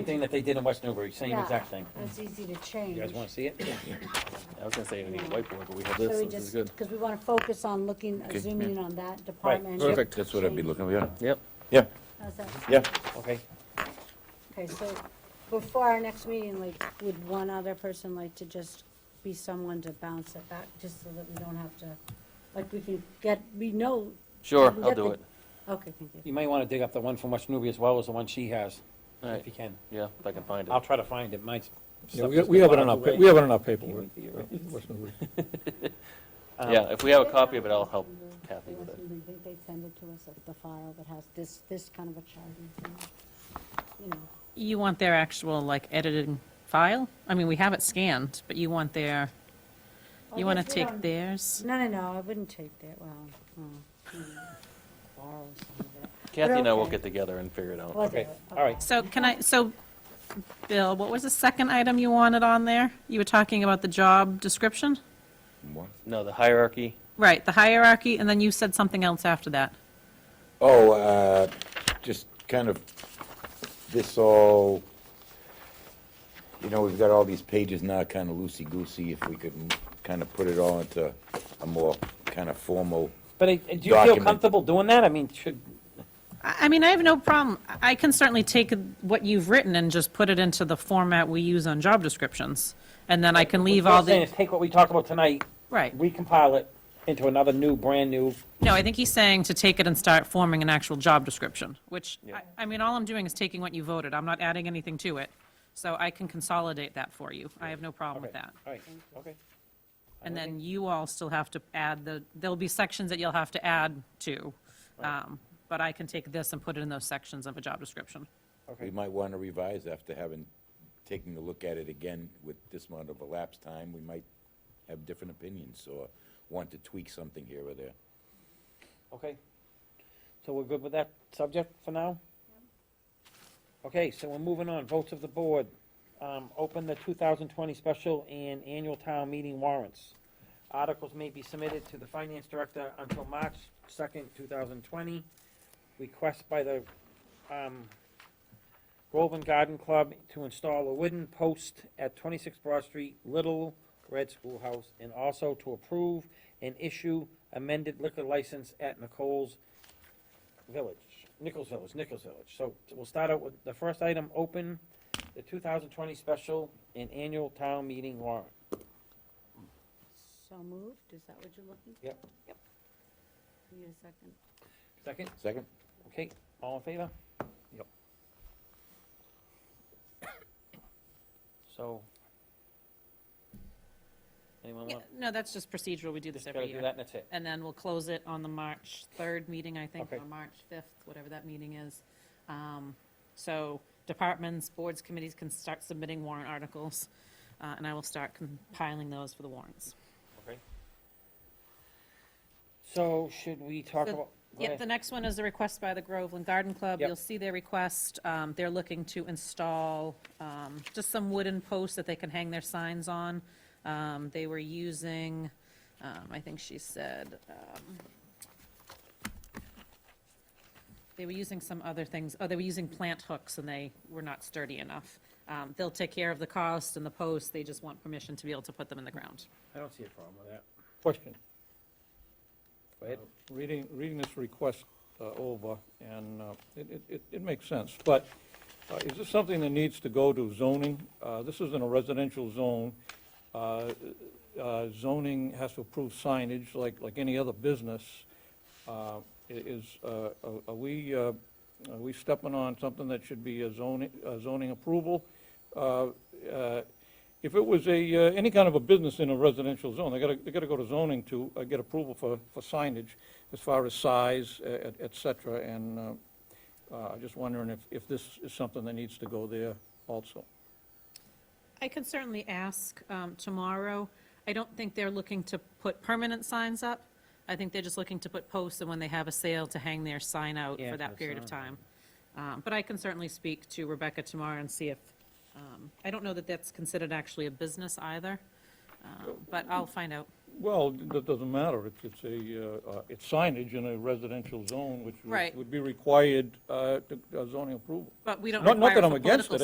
Thing that they did in West Newbury, same Yeah. exact thing. It's easy to change. You guys wanna see it? I was gonna say, we need a whiteboard, but we have So this, we so this just, is good. because we want to focus on looking, Okay, zooming in on that department. Yep, Perfect. That's what I'd be looking, yeah, Yep, yeah, How's that? yeah. Okay, Okay, so before our next meeting, like, would one other person like to just be someone to bounce it back, just so that we don't have to, like, we can get, we know. sure, we can I'll get do the- it. Okay, thank you. you may wanna dig up the one from West Newbury as well as the one she has, if Alright, you can. yeah, if I can find I'll it. try to find it, mine's. Yeah, we we have it on our, pa- we have it on our paperwork. Yeah, if we have a copy of it, I'll help Kathy with it. They think they send it to us, like, the file that has this, this kind of a chart and thing, you know. You want their actual, like, edited file? I mean, we have it scanned, but you want their, I you want to guess Oh, we Mm-hmm. take don't- theirs? No, no, no, I wouldn't take that, well, mm, mm, borrow some of it. Kathy and I will okay. get together and figure it We'll out. do Okay, it, all right. So can I, so, Bill, what was the second item you wanted on there? You were talking about the job description? What? No, the hierarchy, Right, the hierarchy, and then you said something else after that. Oh, uh, just kind of, this all, you know, we've got all these pages now kind of loosey-goosey. If we could kind of put it all into a more kind of formal, But uh, do you feel Document. comfortable doing that? I mean, should, I, I mean, I have no problem, I can certainly take what you've written and just put it into the format we use on job descriptions, and then I can leave what all I'm saying the, is take what we talked about tonight, right. recompile it into another new, brand-new, No, I think he's saying to take it and start forming an actual job description, which, I- I mean, all I'm doing is taking what you voted. I'm not adding anything to it. So I can consolidate that for you. I have no problem with Okay. that. all right, okay. And then you all still have to add the, there'll be sections that you'll have to add to. um, But I can take this and put it in those sections of a job description. we might want to revise after having, taking a look at it again with this amount of elapsed time. We might have different opinions or want to tweak something here or there. Okay. So we're good with that subject for now? Okay, so we're moving on. Votes of the board. Um, open the two thousand twenty special and annual town meeting warrants. Articles may be submitted to the finance director until March second, two thousand twenty. Request by the, um, Groveland Garden Club to install a wooden post at twenty-six Broad Street, Little Red Schoolhouse, and also to approve and issue amended liquor license at Nichols Village, Nichols Village, Nichols Village. So we'll start out with the first item, open the two thousand twenty special and annual town meeting warrant. So moved, is that what you're looking? for? Yep. Yep. Need a second? Second, Second? okay, all in favor? Yep. So. Anyone want, No, that's just procedural. We do this just gotta every do year. that and that's it. And then we'll close it on the March 3rd meeting, I think, Okay. or March 5th, whatever that meeting is. Um, So departments, boards, committees can start submitting warrant articles, uh, and I will start compiling those for the warrants. Okay. So should we talk So- about? go Yep, ahead. the next one is a request by the Groveland Garden Club. Yep. You'll see their request. Um, They're looking to install um, just some wooden posts that they can hang their signs on. Um, They were using, um, I think she said, um, they were using some other things, oh, they were using plant hooks and they were not sturdy enough. Um, They'll take care of the cost and the posts, they just want permission to be able to put them in the ground. I don't see a problem with that. Question, Uh, Go ahead. reading, reading this request uh, over, and uh, it, it- it, it makes sense, but uh, is this something that needs to go to zoning? Uh, This is in a residential zone. Uh, uh, Zoning has to approve signage like, like any other business. Uh, i- Is, uh, are are we, uh, are we stepping on something that should be a zoning, a zoning approval? Uh, uh, If it was a, uh, any kind of a business in a residential zone, they gotta, they gotta go to zoning to uh, get approval for, for signage as far as size, e- et et cetera, and uh, uh, I'm just wondering if, if this is something that needs to go there also. I can certainly ask um, tomorrow. I don't think they're looking to put permanent signs up. I think they're just looking to put posts and when they have a sale to hang their sign out Yeah, for for that the period of sign. time. Um, But I can certainly speak to Rebecca tomorrow and see if, um, I don't know that that's considered actually a business either, um, but I'll find out. Well, that doesn't matter, it's, it's a, uh, uh, it's signage in a residential zone, which would- Right. would be required uh, to- uh, zoning approval. But we don't Not- not require that it I'm for against political it,